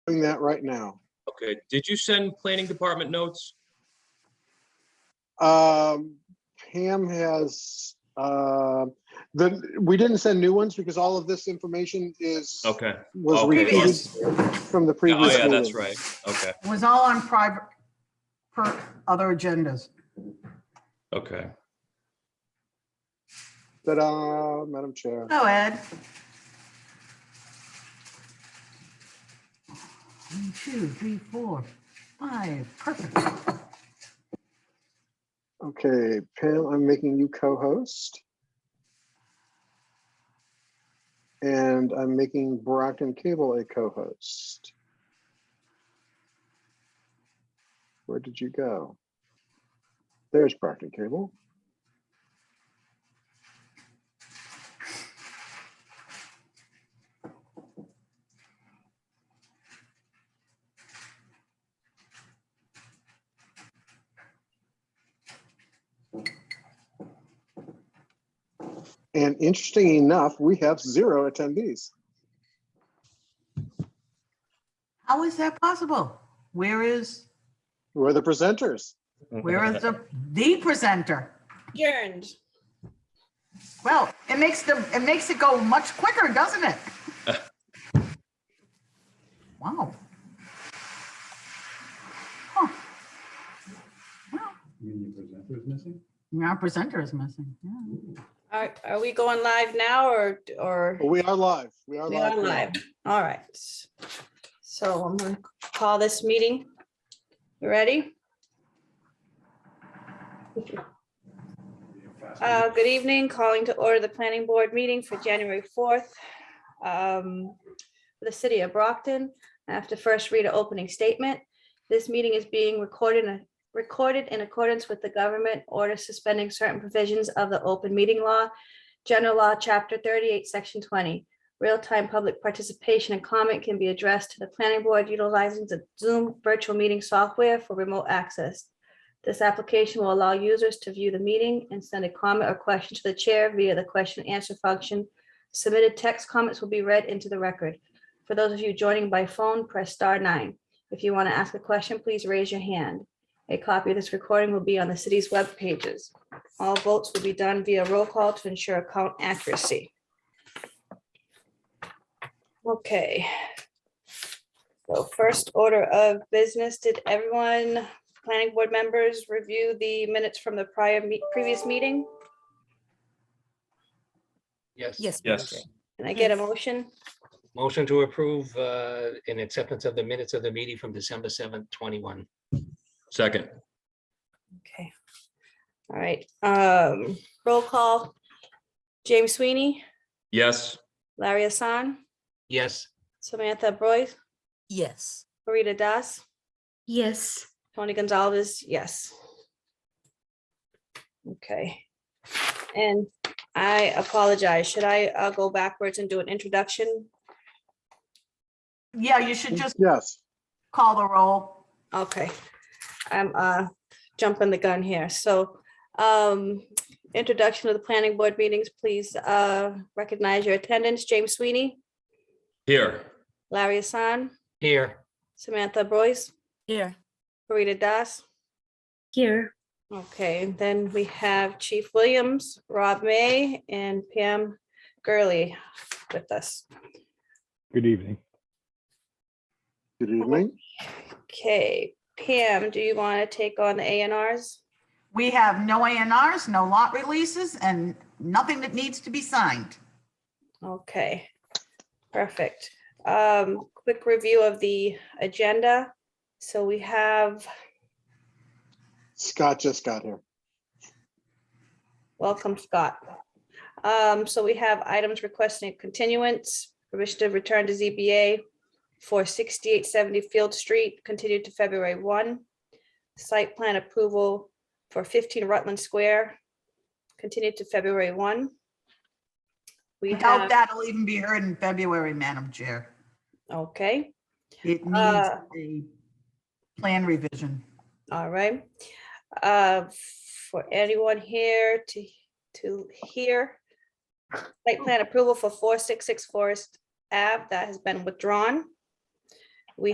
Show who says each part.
Speaker 1: doing that right now.
Speaker 2: Okay, did you send planning department notes?
Speaker 1: Um, Pam has, uh, the, we didn't send new ones because all of this information is,
Speaker 2: Okay.
Speaker 1: was
Speaker 2: Okay.
Speaker 1: repeated from the
Speaker 2: Oh,
Speaker 1: previous
Speaker 2: yeah,
Speaker 1: meeting.
Speaker 2: that's right. Okay,
Speaker 3: It was all on private, for other agendas.
Speaker 2: okay.
Speaker 1: Ta-da, uh, Madam Chair.
Speaker 3: Oh, Ed. One, two, three, four, five, perfect.
Speaker 1: Okay, Pam, I'm making you co-host. And I'm making Brockton Cable a co-host. Where did you go? There's Brockton Cable. And interesting enough, we have zero attendees.
Speaker 3: How is that possible? Where is,
Speaker 1: We're the presenters.
Speaker 3: where is the, the presenter?
Speaker 4: Adjourned.
Speaker 3: Well, it makes the, it makes it go much quicker, doesn't it? Wow. Huh. Well,
Speaker 5: You mean the presenter is missing?
Speaker 3: Our presenter is missing, yeah.
Speaker 4: Are, are we going live now or, or?
Speaker 1: We are live. We are
Speaker 4: We
Speaker 1: live.
Speaker 4: are live. All right. So I'm going to call this meeting. You ready? Uh, Good evening, calling to order the planning board meeting for January 4th. um, for The city of Brockton, I have to first read an opening statement. This meeting is being recorded, recorded in accordance with the government order suspending certain provisions of the open meeting law, general law, chapter 38, section 20. Real-time public participation and comment can be addressed to the planning board utilizing the Zoom virtual meeting software for remote access. This application will allow users to view the meeting and send a comment or question to the chair via the question and answer function. Submitted text comments will be read into the record. For those of you joining by phone, press star nine. If you want to ask a question, please raise your hand. A copy of this recording will be on the city's web pages. All votes will be done via roll call to ensure count accuracy. Okay. So first order of business, did everyone, planning board members, review the minutes from the prior, me- previous meeting?
Speaker 6: Yes.
Speaker 7: Yes. Madam Chair.
Speaker 6: Yes.
Speaker 4: Can I get a motion?
Speaker 6: Motion to approve uh, in acceptance of the minutes of the meeting from December 7th, 21.
Speaker 2: Second,
Speaker 4: Okay. All right, um, roll call. James Sweeney,
Speaker 2: yes,
Speaker 4: Larry Hassan,
Speaker 6: Yes,
Speaker 4: Samantha Boyd,
Speaker 7: Yes.
Speaker 4: Marita Das,
Speaker 8: Yes,
Speaker 4: Tony Gonzalez, yes. Okay. And I apologize. Should I uh, go backwards and do an introduction?
Speaker 3: Yeah, you should just
Speaker 1: Yes.
Speaker 3: call the roll.
Speaker 4: Okay, I'm uh jumping the gun here. So um introduction of the planning board meetings, please uh recognize your attendance. James Sweeney,
Speaker 2: here,
Speaker 4: Larry Hassan,
Speaker 6: here.
Speaker 4: Samantha Boyce,
Speaker 7: Here.
Speaker 4: Rita Das.
Speaker 8: here,
Speaker 4: Okay, and then we have Chief Williams, Rob May, and Pam Gurley with us.
Speaker 9: Good evening.
Speaker 1: Good evening.
Speaker 4: Okay, Pam, do you want to take on the A and Rs?
Speaker 3: We have no ANRs, no lot releases, and nothing that needs to be signed.
Speaker 4: Okay, perfect. Um, quick review of the agenda. So we have,
Speaker 1: Scott just got here.
Speaker 4: welcome Scott. Um, so we have items requesting continuance, permission to return to ZBA for sixty-eight seventy Field Street, continued to February one. Site plan approval for fifteen Rutland Square, continued to February one. We
Speaker 3: We doubt
Speaker 4: have,
Speaker 3: that'll even be heard in February, Madam Chair.
Speaker 4: okay.
Speaker 3: It needs
Speaker 4: Uh,
Speaker 3: a plan revision.
Speaker 4: All right. Uh, For anyone here to, to hear, site plan approval for 466 Forest Ave, that has been withdrawn.